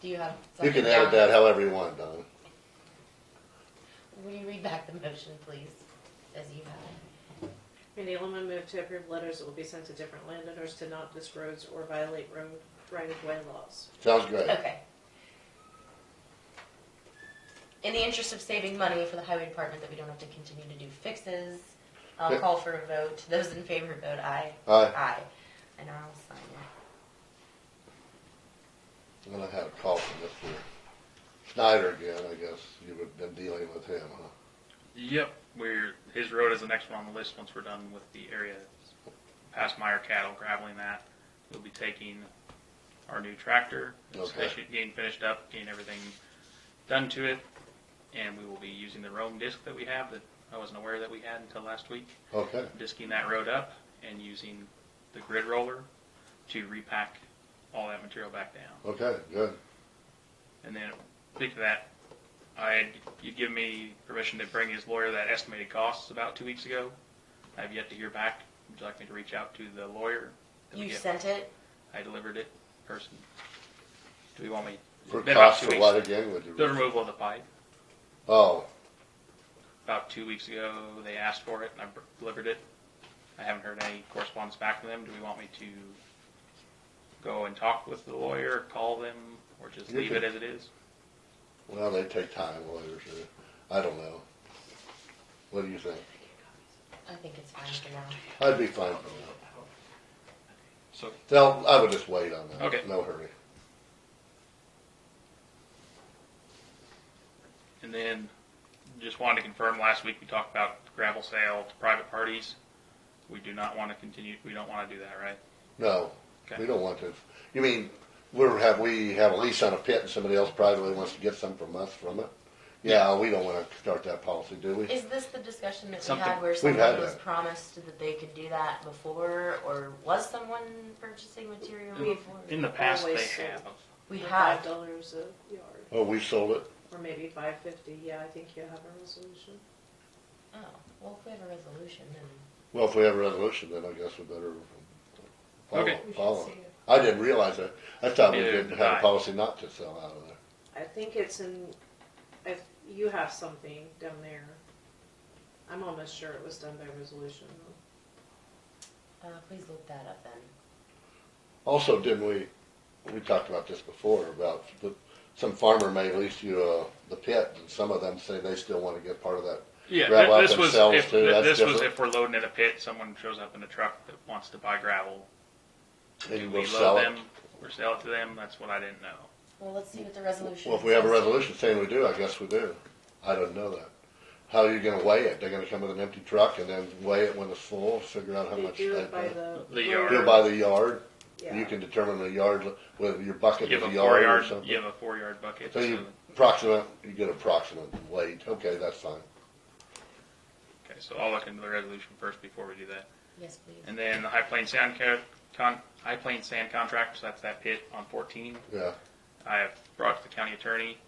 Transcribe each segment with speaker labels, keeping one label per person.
Speaker 1: Do you have?
Speaker 2: You
Speaker 1: something
Speaker 2: can add
Speaker 1: down?
Speaker 2: that however you want, Don.
Speaker 1: Will you read back the motion, please, as you have
Speaker 3: Randy Allen moved to approve letters that will be sent to different landowners to not disc roads or violate road right-of-way laws.
Speaker 2: Sounds
Speaker 1: it?
Speaker 2: great.
Speaker 1: Okay. In the interest of saving money for the highway department, that we don't have to continue to do fixes, I'll
Speaker 2: Okay.
Speaker 1: call for a vote. Those in favor, vote aye.
Speaker 2: Aye.
Speaker 1: Aye. And I'll sign it.
Speaker 2: I'm gonna have a call from Mr. Snyder again, I guess. You've been dealing with him, huh?
Speaker 4: Yep, we're, his road is the next one on the list once we're done with the area past Meyer Cattle, graveling that. We'll be taking our new tractor,
Speaker 2: Okay.
Speaker 4: especially getting finished up, getting everything done to it. And we will be using the Rome disc that we have that I wasn't aware that we had until last week.
Speaker 2: Okay,
Speaker 4: Disking that road up and using the grid roller to repack all that material back down.
Speaker 2: okay, good.
Speaker 4: And then, speaking of that, I had, you'd given me permission to bring his lawyer that estimated costs about two weeks ago. I've yet to hear back. Would you like me to reach out to the lawyer? that we
Speaker 1: You
Speaker 4: get-
Speaker 1: sent it?
Speaker 4: I delivered it in person. Do you want me? it's
Speaker 2: For
Speaker 4: been about
Speaker 2: cost
Speaker 4: two
Speaker 2: for
Speaker 4: weeks.
Speaker 2: what again, would
Speaker 4: The
Speaker 2: you?
Speaker 4: removal of the pipe.
Speaker 2: Oh,
Speaker 4: About two weeks ago, they asked for it and I br- delivered it. I haven't heard any correspondence back from them. Do we want me to go and talk with the lawyer, call them, or just
Speaker 2: You
Speaker 4: leave it
Speaker 2: can-
Speaker 4: as it is?
Speaker 2: well, they take time, lawyers, do. I don't know. What do you think?
Speaker 1: I think it's fine for now.
Speaker 2: I'd be fine for that.
Speaker 4: So
Speaker 2: No, I would just wait on that.
Speaker 4: Okay.
Speaker 2: No hurry.
Speaker 4: And then just wanted to confirm, last week we talked about gravel sale to private parties. We do not want to continue, we don't want to do that, right?
Speaker 2: No,
Speaker 4: Okay.
Speaker 2: we don't want to. You mean, we're, have, we have a lease on a pit and somebody else privately wants to get some from us from it? Yeah, we don't wanna start that policy, do we?
Speaker 1: Is this the discussion that we
Speaker 4: Something-
Speaker 1: had where
Speaker 2: We've had
Speaker 1: someone was
Speaker 2: that.
Speaker 1: promised that they could do that before, or was someone purchasing material
Speaker 4: We've-
Speaker 1: before?
Speaker 4: In the past, they
Speaker 3: Always
Speaker 4: have.
Speaker 1: We
Speaker 3: For
Speaker 1: have.
Speaker 3: Five dollars a yard,
Speaker 2: Oh, we sold it?
Speaker 3: or maybe five fifty, yeah, I think you have a resolution.
Speaker 1: Oh, well, if we have a resolution, then
Speaker 2: Well, if we have a resolution, then I guess we better follow,
Speaker 4: Okay.
Speaker 5: We should
Speaker 2: follow.
Speaker 5: see
Speaker 2: it.
Speaker 5: it.
Speaker 2: I didn't realize that. I thought we
Speaker 4: Neither
Speaker 2: didn't
Speaker 4: did
Speaker 2: have a
Speaker 4: I.
Speaker 2: policy not to sell out of there.
Speaker 3: I think it's in, if you have something down there, I'm almost sure it was done by resolution.
Speaker 1: uh, please look that up then.
Speaker 2: Also, didn't we, we talked about this before, about the, some farmer may lease you, uh, the pit, and some of them say they still wanna get part of that.
Speaker 4: Yeah,
Speaker 2: Gravel
Speaker 4: th-
Speaker 2: out
Speaker 4: this was,
Speaker 2: themselves
Speaker 4: if,
Speaker 2: too,
Speaker 4: th-
Speaker 2: that's
Speaker 4: this was
Speaker 2: different.
Speaker 4: if we're loading in a pit, someone shows up in a truck that wants to buy gravel. Do
Speaker 2: And
Speaker 4: we
Speaker 2: we'll sell
Speaker 4: load
Speaker 2: it.
Speaker 4: them or sell it to them? That's what I didn't know.
Speaker 1: Well, let's see what the resolution.
Speaker 2: Well, if we have a
Speaker 1: says.
Speaker 2: resolution saying we do, I guess we do. I don't know that. How are you gonna weigh it? They're gonna come with an empty truck and then weigh it when it's full, figure out how
Speaker 3: They
Speaker 2: much.
Speaker 3: do
Speaker 2: that-
Speaker 3: it by the.
Speaker 4: The
Speaker 3: road,
Speaker 4: yard.
Speaker 2: Do it by the yard. You
Speaker 3: yeah.
Speaker 2: can determine the yard, whether your bucket
Speaker 4: You
Speaker 2: is
Speaker 4: have
Speaker 2: a
Speaker 4: a four
Speaker 2: yard or
Speaker 4: yard,
Speaker 2: something.
Speaker 4: you have a four yard bucket.
Speaker 2: So you
Speaker 4: so-
Speaker 2: approximate, you get approximate weight. Okay, that's fine.
Speaker 4: Okay, so I'll look into the resolution first before we do that.
Speaker 1: Yes, please.
Speaker 4: And then the High Plain Sand co- con, High Plain Sand contract, so that's that pit on fourteen.
Speaker 2: Yeah.
Speaker 4: I have brought it to the county attorney.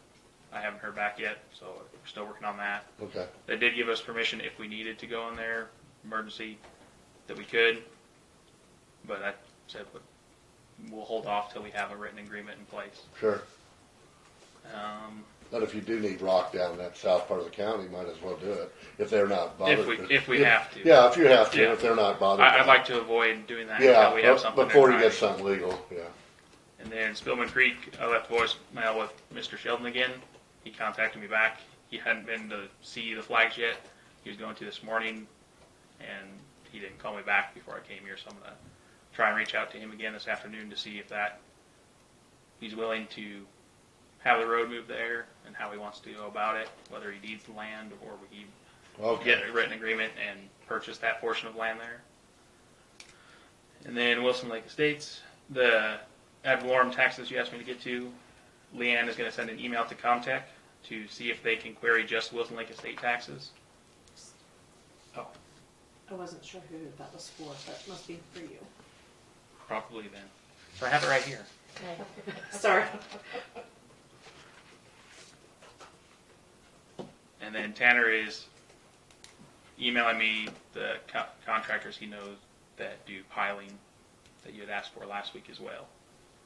Speaker 4: I haven't heard back yet, so we're still working on that.
Speaker 2: Okay.
Speaker 4: They did give us permission if we needed to go in there, emergency, that we could. But I said, but we'll hold off till we have a written agreement in place.
Speaker 2: Sure.
Speaker 4: Um,
Speaker 2: But if you do need rock down in that south part of the county, might as well do it if they're not bothered.
Speaker 4: we-
Speaker 2: to-
Speaker 4: if we have to.
Speaker 2: Yeah, if you have to,
Speaker 4: Yeah.
Speaker 2: if they're not bothered.
Speaker 4: I, I'd
Speaker 2: by it.
Speaker 4: like to avoid doing that
Speaker 2: Yeah,
Speaker 4: until we have
Speaker 2: but
Speaker 4: something. in
Speaker 2: before you get
Speaker 4: writing.
Speaker 2: something legal, yeah.
Speaker 4: And then Spillman Creek, I left voicemail with Mr. Sheldon again. He contacted me back. He hadn't been to see the flags yet. He was going to this morning, and he didn't call me back before I came here. So I'm gonna try and reach out to him again this afternoon to see if that he's willing to have the road moved there and how he wants to go about it, whether he deeds the land or we
Speaker 2: Okay.
Speaker 4: get a written agreement and purchase that portion of land there. And then Wilson Lake Estates, the ad valorem taxes you asked me to get to, Leanne is gonna send an email to Comtech to see if they can query just Wilson Lake Estate taxes. Oh,
Speaker 3: I wasn't sure who that was for, but it must be for you.
Speaker 4: probably then. So I have it right here.
Speaker 1: Okay.
Speaker 3: Sorry.
Speaker 4: And then Tanner is emailing me the co- contractors he knows that do piling that you had asked for last week as well.